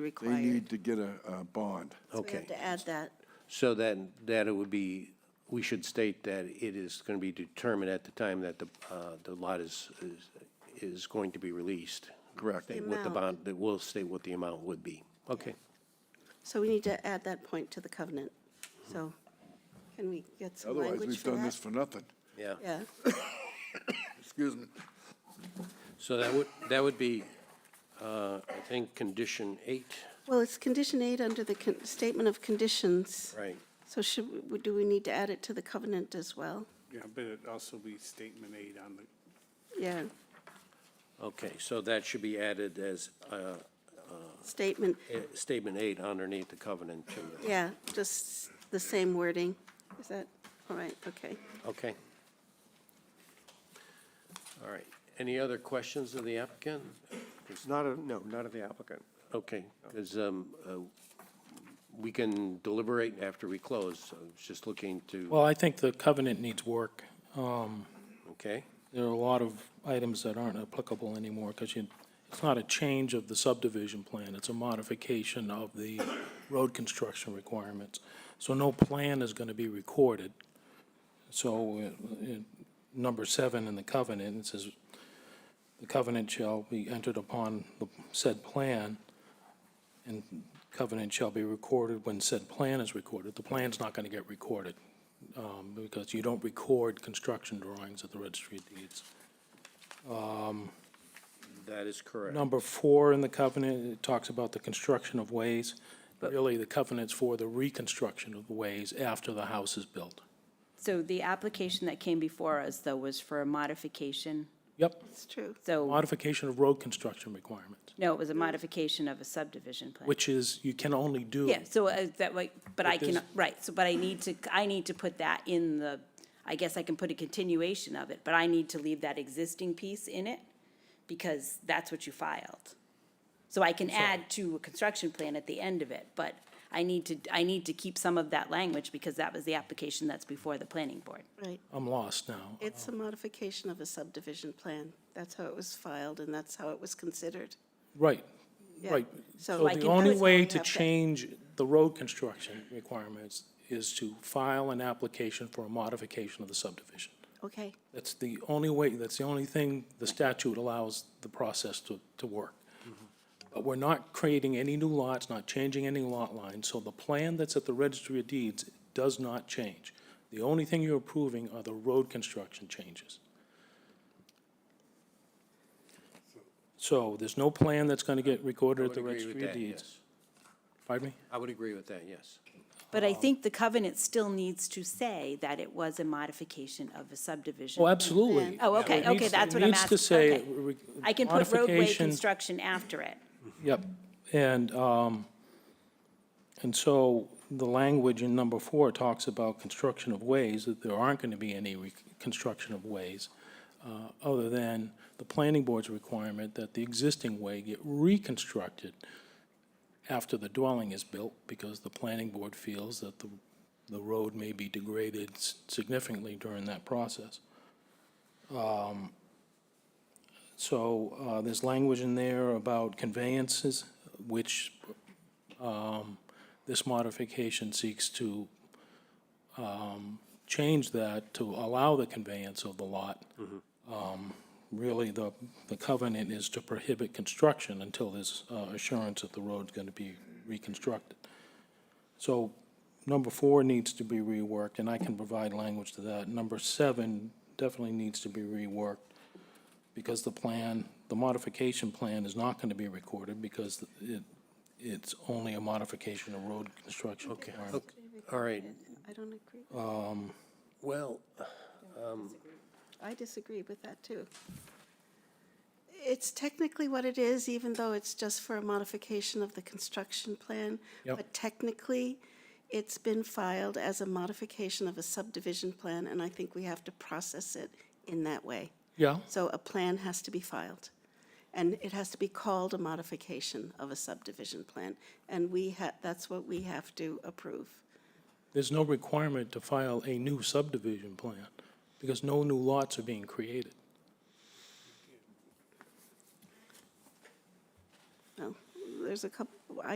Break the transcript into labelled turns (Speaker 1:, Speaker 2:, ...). Speaker 1: be
Speaker 2: They
Speaker 1: required.
Speaker 2: need to get a, a bond.
Speaker 1: So we
Speaker 3: Okay.
Speaker 1: have to add that.
Speaker 3: So then, that it would be, we should state that it is going to be determined at the time that the, uh, the lot is, is- is going to be released.
Speaker 2: Correct.
Speaker 3: State What the bond, that will state what the amount would be. Okay.
Speaker 1: So we need to add that point to the covenant. So can we get some
Speaker 2: Otherwise,
Speaker 1: language
Speaker 2: we've
Speaker 1: for
Speaker 2: done this
Speaker 1: that?
Speaker 2: for nothing.
Speaker 3: Yeah.
Speaker 1: Yeah,
Speaker 2: Excuse me.
Speaker 3: So that would, that would be, uh, I think, condition eight,
Speaker 1: well, it's condition eight under the con- statement of conditions.
Speaker 3: right?
Speaker 1: So should, we- would- do we need to add it to the covenant as well?
Speaker 4: Yeah, but it also be statement eight on the,
Speaker 1: Yeah,
Speaker 3: Okay, so that should be added as uh,
Speaker 1: statement,
Speaker 3: eh, statement eight underneath the covenant, too.
Speaker 1: yeah, just the same wording. Is that, all right, okay.
Speaker 3: Okay. All right. Any other questions of the applicant?
Speaker 5: Not a, no, not of the applicant.
Speaker 3: Okay, because we can deliberate after we close. so I was just looking to,
Speaker 6: Well, I think the covenant needs work. Um,
Speaker 3: okay?
Speaker 6: There are a lot of items that aren't applicable anymore because you, it's not a change of the subdivision plan. It's a modification of the road construction requirements. So no plan is going to be recorded. So uh, uh, number seven in the covenant, it says, "The covenant shall be entered upon the said plan, and covenant shall be recorded when said plan is recorded." The plan's not going to get recorded um, because you don't record construction drawings at the registry of deeds.
Speaker 3: That is correct.
Speaker 6: Number four in the covenant, it talks about the construction of ways. Really, the covenant's for the reconstruction of the ways after the house is built.
Speaker 7: So the application that came before us, though, was for a modification.
Speaker 6: Yep,
Speaker 1: It's true.
Speaker 7: So,
Speaker 6: modification of road construction requirements,
Speaker 7: no, it was a modification of a subdivision plan.
Speaker 6: which is, you can only do.
Speaker 7: Yeah, so uh, that way, but I
Speaker 6: But
Speaker 7: can,
Speaker 6: there's-
Speaker 7: right, so, but I need to, I need to put that in the, I guess I can put a continuation of it, but I need to leave that existing piece in it because that's what you filed. So I can add to a construction plan at the end of it, but I need to, I need to keep some of that language because that was the application that's before the planning board.
Speaker 1: Right.
Speaker 6: I'm lost now.
Speaker 1: It's a modification of a subdivision plan. That's how it was filed, and that's how it was considered.
Speaker 6: Right,
Speaker 1: Yeah.
Speaker 6: right.
Speaker 1: So
Speaker 6: So
Speaker 1: I
Speaker 6: the
Speaker 1: can
Speaker 6: only
Speaker 1: put-
Speaker 6: way
Speaker 1: we
Speaker 6: to
Speaker 1: have to-
Speaker 6: change the road construction requirements is to file an application for a modification of the subdivision.
Speaker 1: Okay,
Speaker 6: That's the only way, that's the only thing the statute allows the process to, to work. But we're not creating any new lots, not changing any lot lines, so the plan that's at the registry of deeds does not change. The only thing you're approving are the road construction changes. So there's no plan that's gonna get recorded at the
Speaker 3: I would agree with
Speaker 6: registry of
Speaker 3: that,
Speaker 6: deeds.
Speaker 3: yes.
Speaker 6: Pardon me?
Speaker 3: I would agree with that, yes.
Speaker 7: But
Speaker 6: Oh.
Speaker 7: I think the covenant still needs to say that it was a modification of a subdivision.
Speaker 6: Oh, absolutely.
Speaker 7: Oh, okay,
Speaker 6: It needs-
Speaker 7: okay, that's
Speaker 6: it
Speaker 7: what I'm
Speaker 6: needs to
Speaker 7: asking,
Speaker 6: say
Speaker 7: okay.
Speaker 6: re-
Speaker 7: I can put roadway
Speaker 6: modification-
Speaker 7: construction after it.
Speaker 6: Yep, and, um, and so the language in number four talks about construction of ways, that there aren't gonna be any reconstruction of ways, uh, other than the planning board's requirement that the existing way get reconstructed after the dwelling is built, because the planning board feels that the, the road may be degraded s- significantly during that process. So uh, there's language in there about conveyances, which um, this modification seeks to um, change that to allow the conveyance of the lot. Um, Really, the, the covenant is to prohibit construction until there's uh, assurance that the road's going to be reconstructed. So number four needs to be reworked, and I can provide language to that. Number seven definitely needs to be reworked because the plan, the modification plan is not going to be recorded because it, it's only a modification of road construction. Okay.
Speaker 3: All right,
Speaker 1: I don't agree.
Speaker 3: well,
Speaker 1: I disagree with that, too. It's technically what it is, even though it's just for a modification of the construction plan.
Speaker 6: Yep.
Speaker 1: But technically, it's been filed as a modification of a subdivision plan, and I think we have to process it in that way.
Speaker 6: Yeah,
Speaker 1: So a plan has to be filed, and it has to be called a modification of a subdivision plan. And we ha, that's what we have to approve.
Speaker 6: there's no requirement to file a new subdivision plan because no new lots are being created.
Speaker 1: No, there- there's a couple, I